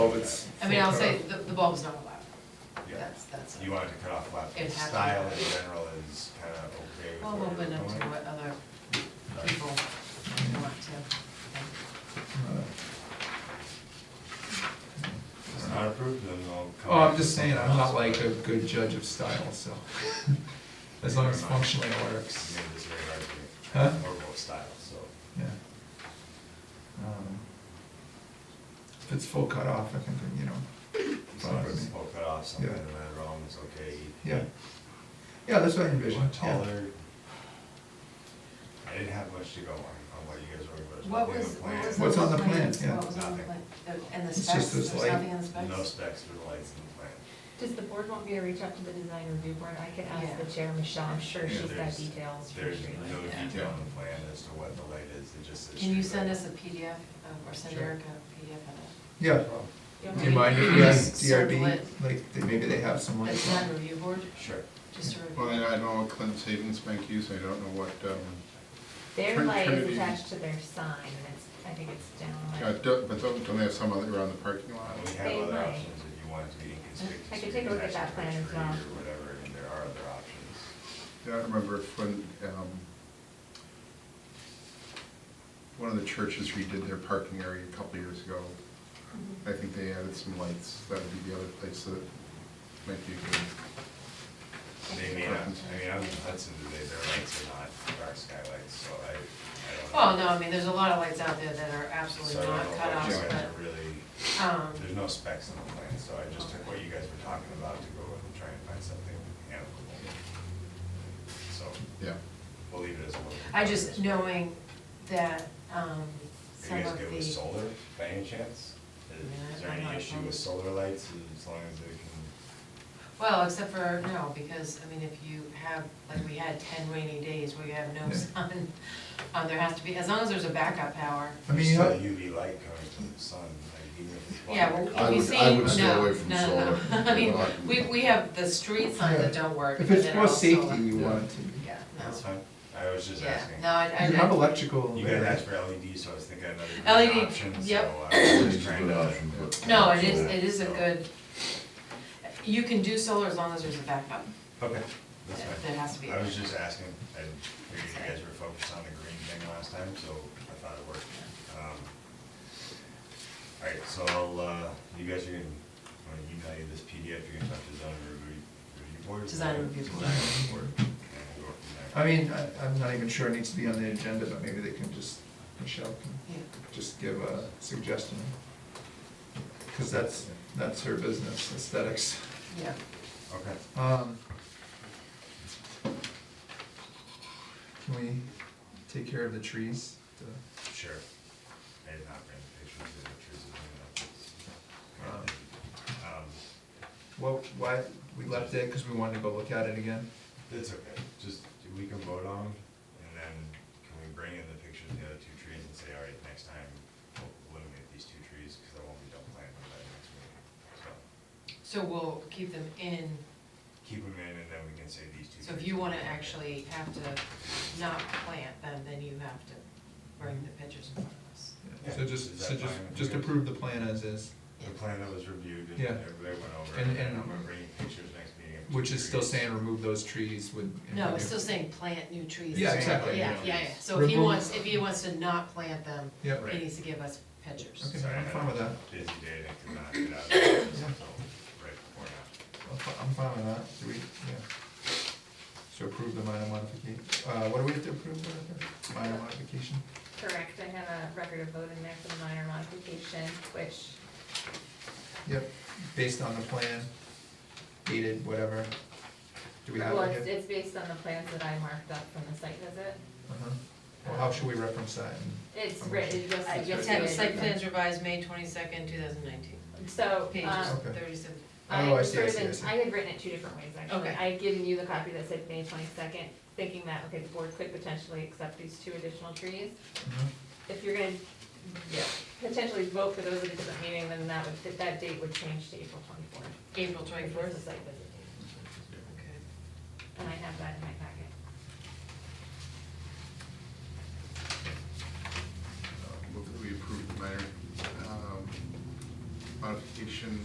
Oh, it's. I mean, I'll say, the, the bulb's not allowed, Yeah, that's, that's. you wanted to cut off left, It but has to. style in general is kind of okay with. Well, what open you're up to doing. what other Right. people want to. If it's not approved, then I'll come. Oh, I'm back just to saying, something I'm else, not like but a good judge of style, so. As long as functionally it it's works, made this very hard to- Huh? Or both style, so. yeah. Um, If it's full cut off, I think, you know, So Right. if it's all cut off, something Yeah. in that wrong is okay. yeah. Yeah, that's what I envision, What yeah. taller? I didn't have much to go on, on what you guys were, but it's What nothing in was, the what was? plan. the What's on the plan? plan, yeah. What was on the plan? And the It's specs, just this there's light. nothing in the specs? No specs for the lights in the plan. Does the board want me to reach out to the design review board? I could ask Yeah. the chair, Michelle, I'm sure Yeah, she's got there's- details. for There's street no Yeah. detail on the plan as to what the light is, it just says. Can you street send light. us a PDF, of- or send Sure. Erica a PDF of Yeah, lighting. do you mind if we ask DRB, Circle it. like, they- maybe they have some it? A like, design review board, Sure. just to review. Well, I I know what Clint's Savings Bank uses, I don't know what, um, Their Trin- light is Trinity. attached to their sign, and it's, I think it's down uh, like, don't- but don't, don't they have some other around the parking lot? We have They other might. options if you want it to be inconspicuous. I could you take a can look at that actually plan as retreat well. Or whatever, and there are other options. Yeah, I remember if when, um, one of the churches redid their parking area a couple years ago. I think they added some lights, that would be the other place that might be good. They may not, I mean, I was in Hudson today, their lights are not dark skylights, so I, I Well, don't know. Oh, no, I mean, there's a lot of lights out there that are So I absolutely don't not know cut what off, you offs, guys but, are Really, um, there's no specs on the plan, so I just took what you guys were talking about to go and try and find something amicable. So, Yeah, we'll leave it as a little. I just knowing that, Are um, some you guys of the. good with solar by any chance? Is- Is there Yeah, I'm any not issue with opposed. solar lights as long as they can? Well, except for, no, because, I mean, if you have, like, we had ten rainy days where you have no Yeah. sun, uh, there has to be, as long as there's a backup power. I mean, There's you still know, UV light coming from the sun, like even if it's. Yeah, well, blinded. I if you would- see, I would stay no, away from no, no, solar. no, I mean, Well, I- we, we have the street signs that Yeah. don't work. if but it's they're more all solar. safety, you Yeah. want it to be. Yeah, That's no, fine, I was just yeah, asking. no, I, I. You have I- electrical. You guys there. asked for LED, so I was thinking another LED, green option, so E uh, yep. I was just It's a trying good to. option, but- No, it is, it is a So- good, you can do solar as long as there's a backup. Okay, that's fine. There has to be. I was just asking, I figured you guys were focused on the green thing last time, so I thought it worked. Alright, so I'll, uh, you guys are gonna, I'm gonna email you this PDF, you're gonna talk to design review, review board? Design review board. Design review board, and we'll go from there. I mean, I, I'm not even sure it needs to be on the agenda, but maybe they can just, Michelle can Yeah. just give a suggestion. Cause that's, that's her business, aesthetics. Yeah, Okay. Um, Can we take care of the trees? The- Sure. I did not bring pictures of the trees in my office. Um, Well, why, we left it because we wanted to go look at it again? It's okay, just, we can vote on, 'em, and then can we bring in the pictures of the other two trees and say, all right, next time, we'll eliminate these two trees, because I won't be done planting them by the next meeting. So, so we'll keep them in, keep them in, and then we can say these two. so if trees you will wanna be there. actually have to not plant them, then you have to bring the pictures in front of us. Yeah. So just, Is so that just, fine with just you guys? approve the plan as is, The plan that was reviewed, and Yeah. everybody went over, And- and then and- I'm gonna bring you pictures next meeting. of two which is still trees. saying remove those trees with. No, it's still saying plant new trees. Yeah, exactly. Yeah, yeah, yeah, so if he Remove- wants, if he wants to not plant them, Yep. he needs to give us pictures. Okay, I'm fine with that. Busy day, I could not get out of the office until right before now. I'm fi- I'm fine with that, do we, yeah. So approve the minor modification, uh, what do we have to approve, Veronica? Minor modification? Correct, I have a record of vote in there for the minor modification, which, Yep, based on the plan, dated, whatever. Do we have well, it it's, here? it's based on the plans that I marked up from the site visit. Uh-huh. Well, how should we reference that? It's Oh, Okay. written, just I suggested. just have Uh, site plans revised May twenty-second, two thousand nineteen, So, pages um, Okay. thirty-seven. I Oh, I had see, I sort of see, I been- see. I had written it two different ways, actually. Okay. I had given you the copy that said May twenty-second, thinking that, okay, the board could potentially accept these two additional trees. Mhm. If you're gonna potentially vote for those at a different meeting, then that would, that- that date would change to April twenty-fourth. April twenty-fourth. site visit date. And I have that in my packet. Uh, Move that we approve the minor, um, modification application